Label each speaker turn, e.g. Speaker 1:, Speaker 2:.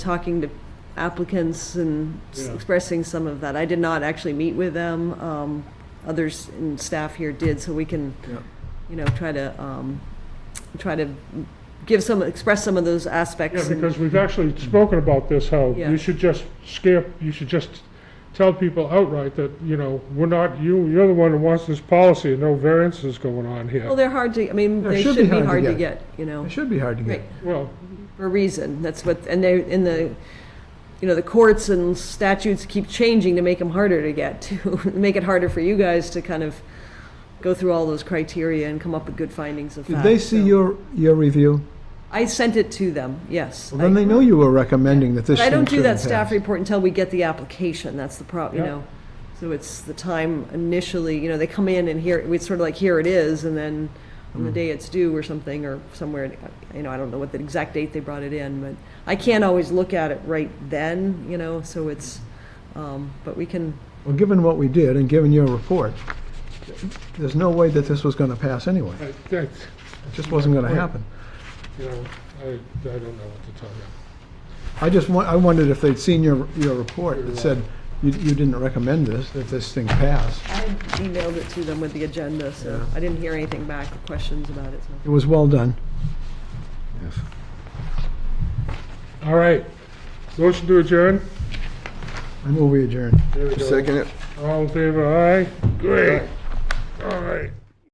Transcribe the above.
Speaker 1: talking to applicants and s-
Speaker 2: Yeah.
Speaker 1: expressing some of that. I did not actually meet with them. Um, others and staff here did, so we can,
Speaker 2: Yeah.
Speaker 1: you know, try to, um, try to give some, express some of those
Speaker 2: Yeah,
Speaker 1: aspects. and-
Speaker 2: because we've actually spoken about this, how
Speaker 1: Yeah.
Speaker 2: you should just skip, you should just tell people outright that, you know, we're not, you, you're the one who wants this policy and no variances going on
Speaker 1: Well,
Speaker 2: here.
Speaker 1: they're hard to, I mean,
Speaker 3: Yeah,
Speaker 1: they should be hard to
Speaker 3: get.
Speaker 1: get, you know.
Speaker 3: It should be hard to get.
Speaker 1: Right.
Speaker 2: Well,
Speaker 1: for a reason. That's what, and they, in the, you know, the courts and statutes keep changing to make them harder to get to, make it harder for you guys to kind of go through all those criteria and come up with good findings of
Speaker 3: Did
Speaker 1: fact.
Speaker 3: they see
Speaker 1: so-
Speaker 3: your, your review?
Speaker 1: I sent it to them, yes.
Speaker 3: Well, Then
Speaker 1: I-
Speaker 3: they know you were recommending that this
Speaker 1: But I
Speaker 3: thing
Speaker 1: don't do
Speaker 3: shouldn't
Speaker 1: that staff
Speaker 3: pass.
Speaker 1: report until we get the application. That's the prob, you
Speaker 2: Yeah.
Speaker 1: know. So it's the time initially, you know, they come in and here, it's sort of like, here it is, and then on the day it's due or something, or somewhere, you know, I don't know what the exact date they brought it in, but I can't always look at it right then, you know, so it's, um, but we can,
Speaker 3: Well, given what we did and given your report, there's no way that this was going to pass anyway.
Speaker 2: I, that's,
Speaker 3: It just wasn't going to
Speaker 2: Right.
Speaker 3: happen.
Speaker 2: you know, I, I don't know what to tell you.
Speaker 3: I just, wa- I wondered if they'd seen your, your report that said you, you didn't recommend this, that this thing passed.
Speaker 1: I emailed it to them with the agenda, so I didn't hear anything back, or questions about it, so.
Speaker 3: It was well done.
Speaker 2: All right, motion to adjourn?
Speaker 3: I move we adjourn.
Speaker 2: There we go.
Speaker 4: Second it.
Speaker 2: All in favor, aye? Great, all right.